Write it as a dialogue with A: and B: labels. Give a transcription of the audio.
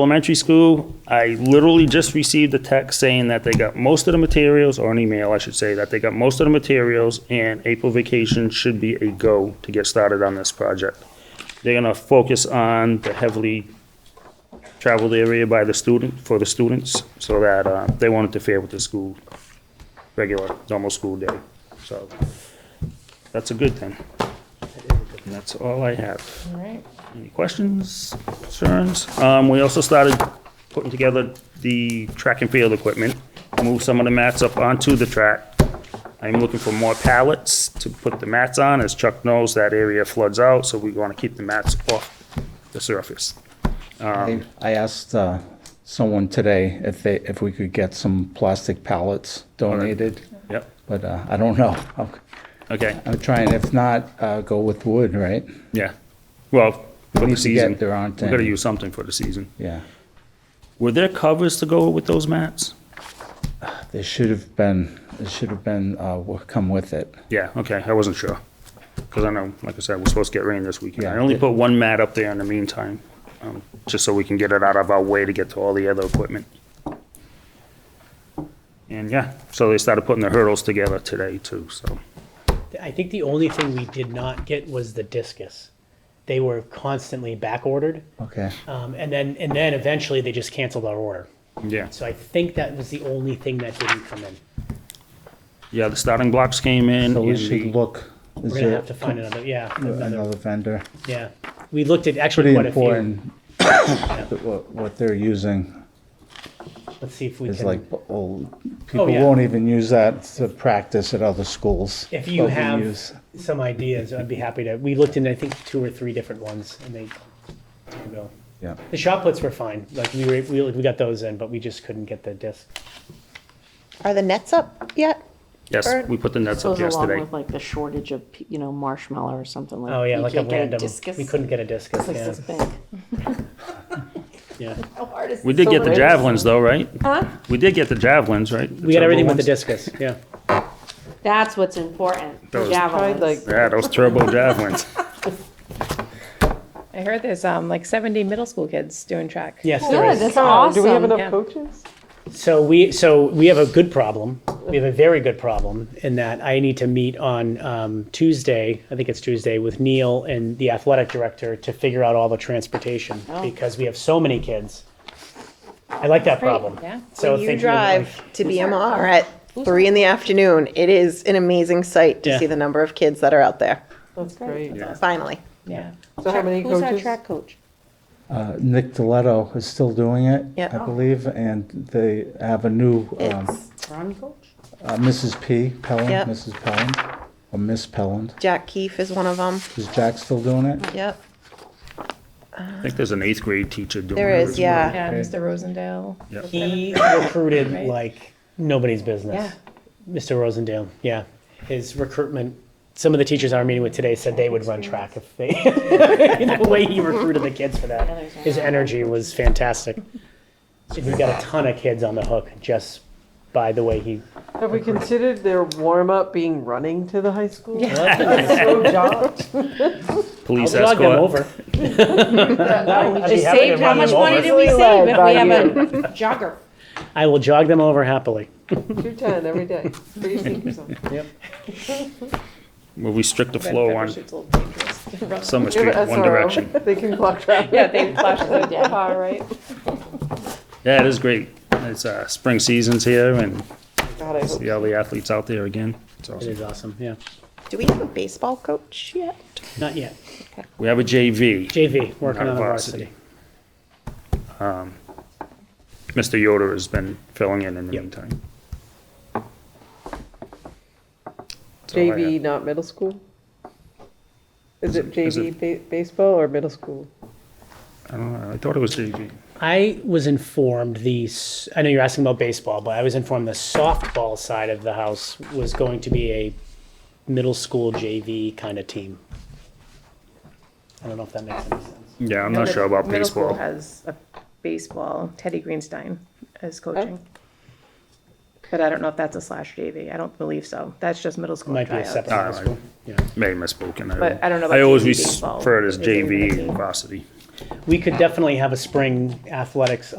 A: Elementary school, I literally just received a text saying that they got most of the materials, or an email, I should say, that they got most of the materials and April vacation should be a go to get started on this project. They're gonna focus on the heavily traveled area by the student, for the students, so that, uh, they won't interfere with the school, regular, normal school day, so. That's a good thing. And that's all I have.
B: All right.
A: Any questions, concerns? Um, we also started putting together the track and field equipment, move some of the mats up onto the track. I'm looking for more pallets to put the mats on, as Chuck knows, that area floods out, so we wanna keep the mats off the surface.
C: I I asked uh, someone today if they, if we could get some plastic pallets donated,
A: Yep,
C: but uh, I don't know. I'm-
A: okay,
C: I'm trying, if not, uh, go with wood, right?
A: yeah. Well, for the
C: need to get
A: season, we
C: there, aren't
A: gotta
C: they?
A: use something for the season.
C: Yeah,
A: Were there covers to go with those mats?
C: there should have been, there should have been, uh, what come with it.
A: Yeah, okay, I wasn't sure. Because I know, like I said, we're supposed to get rain this weekend. I
C: Yeah.
A: only put one mat up there in the meantime, um, just so we can get it out of our way to get to all the other equipment. And yeah, so they started putting the hurdles together today too, so.
D: I think the only thing we did not get was the discus. They were constantly back ordered,
C: Okay,
D: um, and then and then eventually they just canceled our order.
A: Yeah,
D: So I think that was the only thing that didn't come in.
A: yeah, the starting blocks came in.
C: so we
A: and
C: should
A: the-
C: look. Is
D: We're gonna
C: there
D: have to find another. Yeah, another.
C: Another vendor.
D: Yeah, we looked at actually
C: Pretty
D: quite a few.
C: important, that what, what they're using
D: Let's see if we
C: is
D: can.
C: like, oh, people
D: yeah.
C: won't even use that to practice at other schools.
D: if you
C: but we
D: have
C: use-
D: some ideas, I'd be happy to. We looked into I think two or three different ones, and they. didn't go.
C: Yeah,
D: The shot puts were fine. Like we were, we, we got those in, but we just couldn't get the disc.
B: Are the nets up yet?
A: Yes, we put the nets up
E: Goes along
A: yesterday.
E: with like the shortage of, you know, marshmallow or something like.
D: Oh yeah,
E: you
D: like a
E: can't get
D: random.
E: discus.
D: We couldn't get a discus.
E: It's like
D: yeah.
E: this big.
D: Yeah,
E: How hard is
A: We did
E: this?
A: get the
E: So-
A: javelins though, right? Huh? We did get the javelins, right?
D: we got everything with the discus. Yeah,
E: That's what's important, the
A: Those-
E: javelins.
A: Yeah, those turbo javelins.
B: I heard there's um, like 70 middle school kids doing track.
D: yes, there
E: Yeah,
D: is.
E: that's awesome.
F: Do we have enough
B: yeah.
F: coaches?
D: So we so we have a good problem. We have a very good problem in that I need to meet on um, Tuesday. I think it's Tuesday with Neil and the athletic director to figure out all the transportation
E: Oh.
D: because we have so many kids. I like that problem.
B: yeah.
D: So
F: you
D: thinking of, like,
F: drive to BMR at three in the afternoon. It is an amazing sight to
D: Yeah.
F: see the number of kids that are out there.
E: That's great.
F: Finally.
B: Yeah.
F: So how many
E: Who's our
F: coaches?
E: track coach?
C: Uh, Nick Deletto is still doing it,
F: Yeah.
C: I believe, and they have a new, um,
F: It's
E: Run coach?
C: uh, Mrs. P.
F: Yep.
C: Pelland, Mrs. Pelland, or Miss Pelland.
F: Jack Keefe is one of them.
C: Is Jack still doing it?
F: Yep.
A: I think there's an eighth grade teacher doing it.
F: There
A: as
F: is,
A: well.
F: yeah.
B: Yeah, Mr. Rosendale.
D: He recruited
B: Right.
D: like nobody's business. Mr. Rosendale, yeah. His recruitment, some of the teachers I'm meeting with today said they would run track if they, the way he recruited the kids for that.
E: Others are
D: His
E: not.
D: energy was fantastic. And He's got a ton of kids on the hook just by the way he,
F: Have we considered their warm-up being running to the high school? That's so job.
D: I'll
A: Police
D: jog them
A: escort.
D: over.
E: We just
D: happy to
E: saved, how
D: run
E: much
D: them
E: money
D: over.
E: did we save if we have a jogger?
D: I will jog them over happily.
F: Two ten every day. Put your sneakers on.
A: We'll restrict the flow on
B: Parachutes a little dangerous.
A: Summer
F: You
A: Street,
F: have a
A: one
F: SRO.
A: direction.
F: They can block traffic.
B: Yeah, they flash the car, right?
A: Yeah, it is great. It's uh, spring season's here, and
F: God, I hope.
A: see all the athletes out there again. It's
D: It
A: awesome.
D: is awesome, yeah.
F: Do we have a baseball coach yet?
D: Not yet.
A: We have a JV.
D: JV, working
A: Not
D: on the
A: varsity.
D: varsity.
A: Mr. Yoder has been filling in in the
D: Yep.
A: meantime. That's all I
F: JV,
A: have.
F: not middle school? Is it
A: is
F: JV ba- baseball or middle school?
A: I don't know. I thought it was JV.
D: I was informed the, s- I know you're asking about baseball, but I was informed the softball side of the house was going to be a middle school JV kind of team. I don't know if that makes any sense.
A: Yeah, I'm not sure about
B: Middle school
A: baseball.
B: Has a baseball, Teddy Greenstein is coaching. But I don't know if that's a slash JV. I don't believe so. That's just middle
D: It
B: school
D: might be a
B: tryouts.
D: separate
A: All
D: high
A: right.
D: school. Yeah.
A: Maybe misspoken.
B: But I don't know
A: I
B: about
A: always
B: JV baseball.
A: refer to it as
B: Is there even a
A: JV
B: team?
A: varsity.
D: we could definitely have a spring athletics